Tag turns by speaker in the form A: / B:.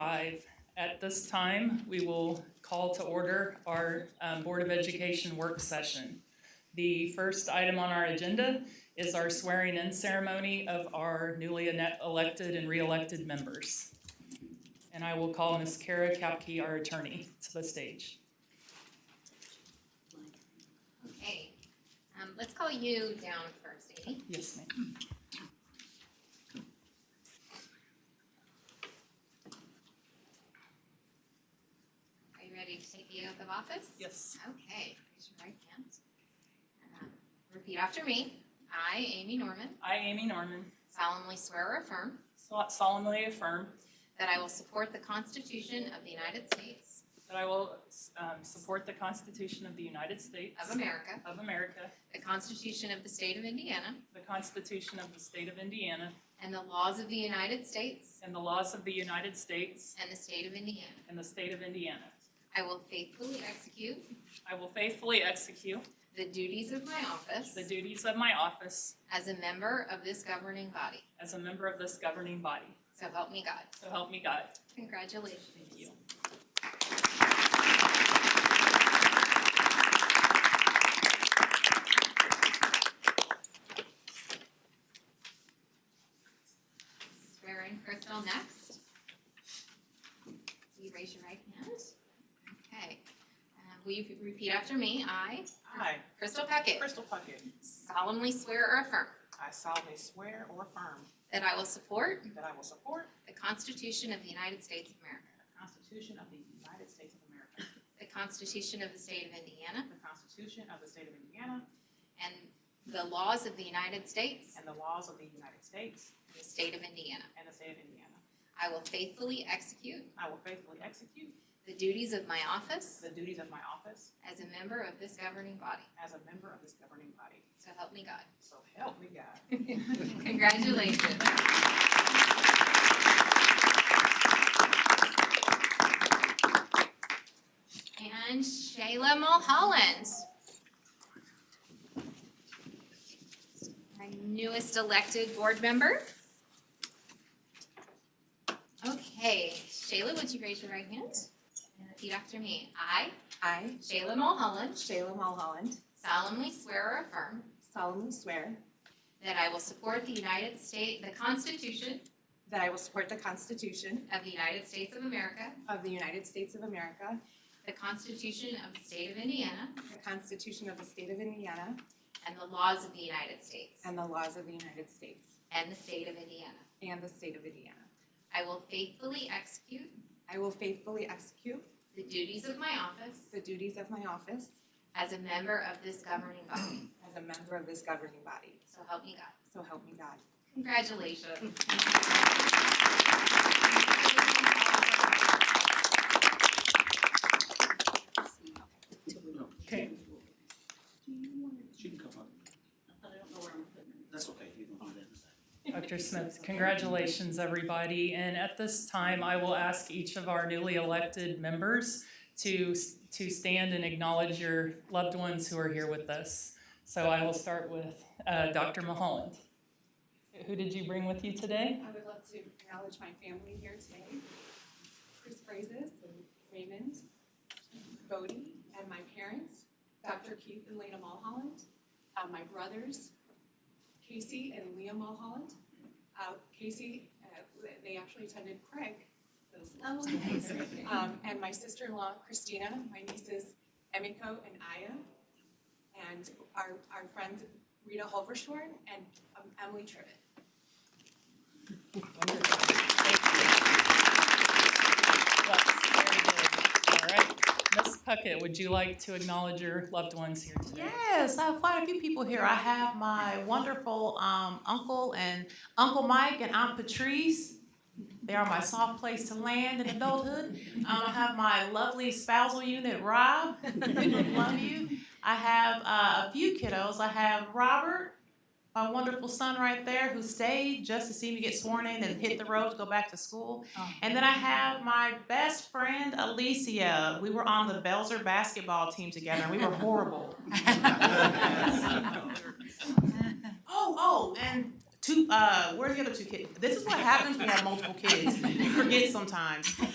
A: five. At this time, we will call to order our um, Board of Education work session. The first item on our agenda is our swearing-in ceremony of our newly ene- elected and re-elected members. And I will call Ms. Kara Kapke, our attorney, to the stage.
B: Okay, um, let's call you down first, Amy.
A: Yes, ma'am.
B: Are you ready to take the oath of office?
A: Yes.
B: Okay, raise your right hand. Um, Repeat after me. I, Amy Norman,
A: I, Amy Norman,
B: solemnly swear or affirm
A: solemnly affirm
B: that I will support the Constitution of the United States
A: that I will um, support the Constitution of the United States
B: of America,
A: of America,
B: the Constitution of the State of Indiana,
A: the Constitution of the State of Indiana,
B: and the laws of the United States
A: And the laws of the United States
B: and the State of Indiana.
A: and the state of Indiana.
B: I will faithfully execute
A: I will faithfully execute
B: the duties of my office
A: the duties of my office
B: as a member of this governing body.
A: as a member of this governing body.
B: So help me God.
A: So help me God.
B: Congratulations.
A: Thank you.
B: Swear in Crystal next. Will you raise your right hand? Okay. Uh, Will you repeat after me? I,
C: I,
B: Crystal Puckett,
C: Crystal Puckett,
B: solemnly swear or affirm
C: I solemnly swear or affirm
B: that I will support
C: that I will support
B: the Constitution of the United States of America,
C: the Constitution of the United States of America,
B: the Constitution of the State of Indiana,
C: the Constitution of the State of Indiana,
B: and the laws of the United States
C: and the laws of the United States
B: and the State of Indiana.
C: and the State of Indiana.
B: I will faithfully execute
C: I will faithfully execute
B: the duties of my office
C: the duties of my office
B: as a member of this governing body.
C: as a member of this governing body.
B: So help me God.
C: So help me God.
B: Congratulations. And Shayla Mulholland. Our newest elected board member. Okay, Shayla, would you raise your right hand and repeat after me? I,
D: I,
B: Shayla Mulholland,
D: Shayla Mulholland,
B: solemnly swear or affirm
D: solemnly swear
B: that I will support the United States, the Constitution
D: that I will support the Constitution
B: of the United States of America,
D: of the United States of America,
B: the Constitution of the State of Indiana,
D: the Constitution of the State of Indiana,
B: and the laws of the United States
D: and the laws of the United States
B: and the State of Indiana.
D: and the State of Indiana.
B: I will faithfully execute
D: I will faithfully execute
B: the duties of my office
D: the duties of my office
B: as a member of this governing body.
D: as a member of this governing body.
B: So help me God.
D: So help me God.
B: Congratulations.
A: Okay.
E: She can come up. That's okay, you can do that in a second.
A: Dr. Smith, congratulations, everybody. And at this time, I will ask each of our newly elected members to, to stand and acknowledge your loved ones who are here with us. So I will start with uh, Dr. Mulholland. Who did you bring with you today?
D: I would love to acknowledge my family here today. Chris Brazis and Raymond, Bodie, and my parents, Dr. Keith and Lena Mulholland, uh, my brothers, Casey and Leah Mulholland. Uh, Casey, uh, they actually attended Craig.
B: Oh, nice.
D: Um, and my sister-in-law Christina, my nieces Emiko and Aya, and our, our friends Rita Holvershorn and um, Emily Trivet.
A: Yes, very good. All right. Ms. Puckett, would you like to acknowledge your loved ones here today?
F: Yes, I have quite a few people here. I have my wonderful um, uncle and Uncle Mike and Aunt Patrice. They are my soft place to land in adulthood. Um, I have my lovely spousal unit, Rob. Love you. I have uh, a few kiddos. I have Robert, my wonderful son right there, who stayed just to see me get sworn in and hit the road to go back to school. And then I have my best friend, Alicia. We were on the Belzer basketball team together, and we were horrible. Oh, oh, and two. Uh, where are the other two kids? This is what happens when you have multiple kids. You forget sometimes.